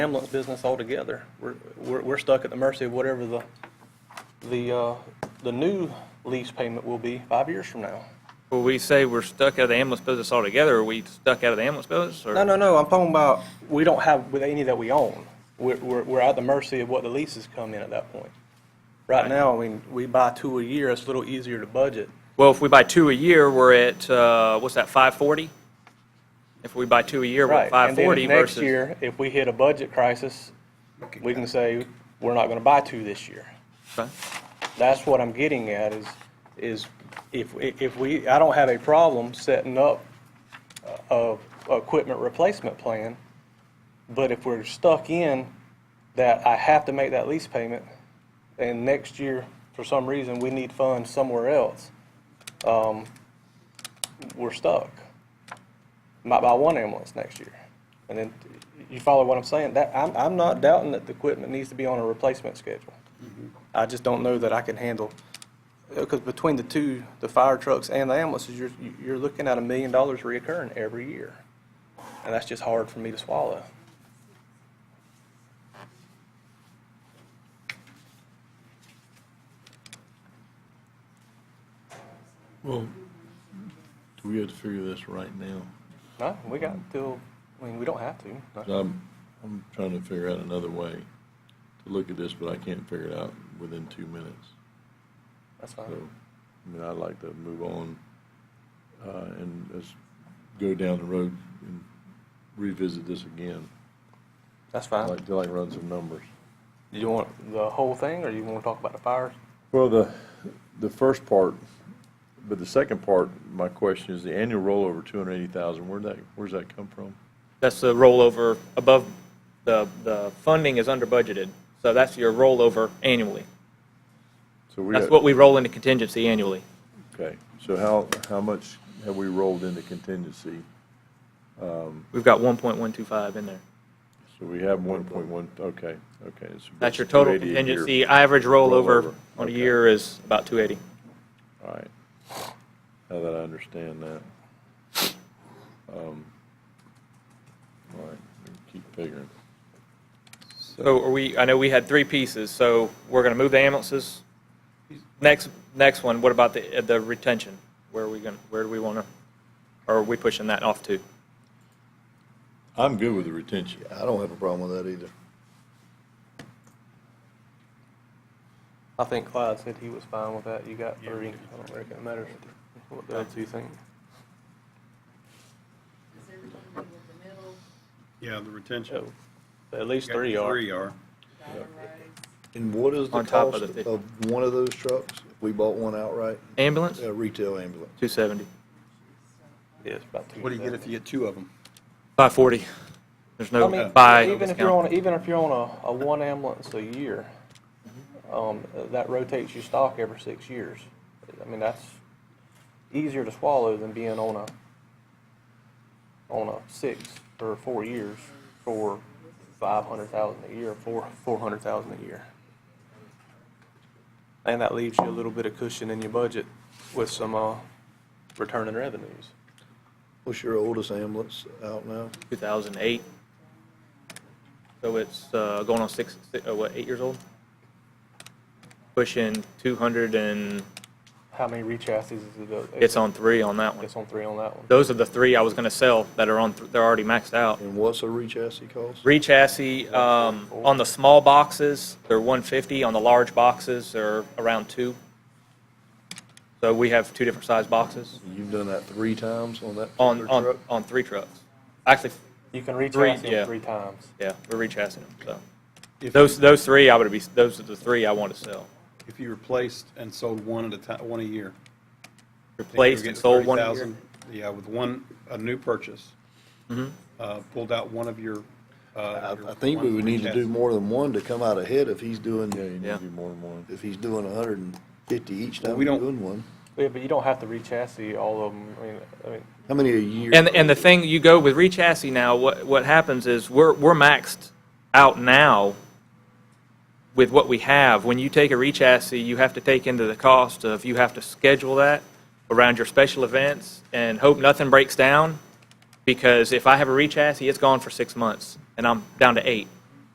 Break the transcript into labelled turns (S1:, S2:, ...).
S1: ambulance business altogether. We're, we're, we're stuck at the mercy of whatever the, the, uh, the new lease payment will be five years from now.
S2: Will we say we're stuck out of the ambulance business altogether, or are we stuck out of the ambulance business? or-
S1: No, no, no, I'm talking about, we don't have with any that we own. We're, we're, we're at the mercy of what the leases come in at that point. Right now, I mean, we buy two a year, it's a little easier to budget.
S2: Well, if we buy two a year, we're at, uh, what's that, 540? If we buy two a year, we're at
S1: Right, and then
S2: 540
S1: next
S2: versus.
S1: year, if we hit a budget crisis, we can say, we're not gonna buy two this year.
S2: Okay.
S1: That's what I'm getting at is, is if, if we, I don't have a problem setting up a, a equipment replacement plan, but if we're stuck in that I have to make that lease payment, and next year, for some reason, we need funds somewhere else, um, we're stuck. Might buy one ambulance next year. And then, you follow what I'm saying? That, I'm, I'm not doubting that the equipment needs to be on a replacement schedule. I just don't know that I can handle, because between the two, the fire trucks and the ambulances, you're, you're looking at a million dollars reoccurring every year. And that's just hard for me to swallow.
S3: Well, we have to figure this right now.
S1: No, we got till, I mean, we don't have to.
S3: I'm, I'm trying to figure out another way to look at this, but I can't figure it out within two minutes.
S1: That's
S3: So,
S1: fine.
S3: I mean, I'd like to move on, uh, and let's go down the road and revisit this again.
S1: That's
S3: I'd
S1: fine.
S3: like to like run some numbers.
S1: Do you want the whole thing, or you want to talk about the fires?
S3: Well, the, the first part, but the second part, my question is the annual rollover, two hundred eighty thousand, where'd that, where's that come from?
S2: That's the rollover above, the, the funding is under budgeted, so that's your rollover annually.
S3: So we
S2: That's
S3: got-
S2: what we roll into contingency annually.
S3: Okay, so how, how much have we rolled into contingency?
S2: We've got 1.125 in there.
S3: So we have one point one, okay, okay. it's about
S2: That's your total
S3: 280 a year.
S2: contingency, average rollover
S3: Rollover,
S2: on a
S3: okay.
S2: year is about 280.
S3: All right, now that I understand that. Um, All right, we keep figuring.
S2: So are we, I know we had three pieces, so we're going to move the ambulances. Next, next one, what about the, uh, the retention? Where are we going, to where do we want to, or are we pushing that off to?
S3: I'm good with the retention.
S4: I don't have a problem with that either.
S1: I think Clyde said he was fine with that. You got three. I don't reckon it matters what the other two think.
S5: Is everything good with the middle,
S6: Yeah, the retention.
S2: Oh,
S1: So, at least three are.
S6: Three are.
S5: Dollar Road?
S4: And what is the
S2: On top of
S4: cost
S2: the fif-
S4: of one of those trucks? If we bought one outright,
S2: Ambulance,
S4: a retail ambulance?
S2: 270.
S1: Yeah, it's about two.
S6: What do you get if you get two of them?
S2: 540. There's
S1: I
S2: no
S1: mean,
S2: buy
S1: even if you're
S2: discount.
S1: on, even if you're on a, a one ambulance a year, um, that rotates your stock every six years. I mean, that's easier to swallow than being on a, on a six or four years for five hundred thousand a year, four, four hundred thousand a year. And that leaves you a little bit of cushion in your budget with some, uh, returning revenues.
S4: What's your oldest ambulance out now?
S2: 2008. So it's uh, going on six, si- uh, what, eight years old? Pushing 200 and,
S1: How many rechassis is it?
S2: it's on three on that one.
S1: It's on three on that one.
S2: Those are the three I was going to sell that are on, th- they're already maxed out.
S4: And what's a re-chassis cost?
S2: Rechassis, um, on the small boxes, they're 150, on the large boxes, they're around two. So we have two different size boxes
S4: You've done that three times on that
S2: on,
S4: particular
S2: on,
S4: truck?
S2: on three trucks. Actually,
S1: You can reach
S2: Three,
S1: out to
S2: yeah.
S1: them three times.
S2: yeah, we're rechassing them, so.
S6: If
S2: Those, those three I would be, those are the three I want to sell.
S6: If you replaced and sold one at a time, one a year.
S2: Replaced
S6: You're
S2: and
S6: getting
S2: sold one a year.
S6: 30,000, Yeah, with one, a new purchase.
S2: Mm-hmm.
S6: Uh, Pulled out one of your. uh,
S4: I, I think we would need to do more than one to come out ahead if he's doing,
S3: Yeah, you need
S2: Yeah.
S3: to do more than one.
S4: if he's doing hundred and fifty each time
S6: we
S4: he's
S6: don't-
S4: doing one.
S1: Yeah, but you don't have to re-chassis all of them. I mean, I mean,
S4: How many a year?
S2: And, and the thing, you go with rechassis now, what, what happens is we're, we're maxed out now with what we have. When you take a rechassis, you have to take into the cost of, you have to schedule that around your special events and hope nothing breaks down. Because if I have a rechassis, it's gone for six months and I'm down to eight.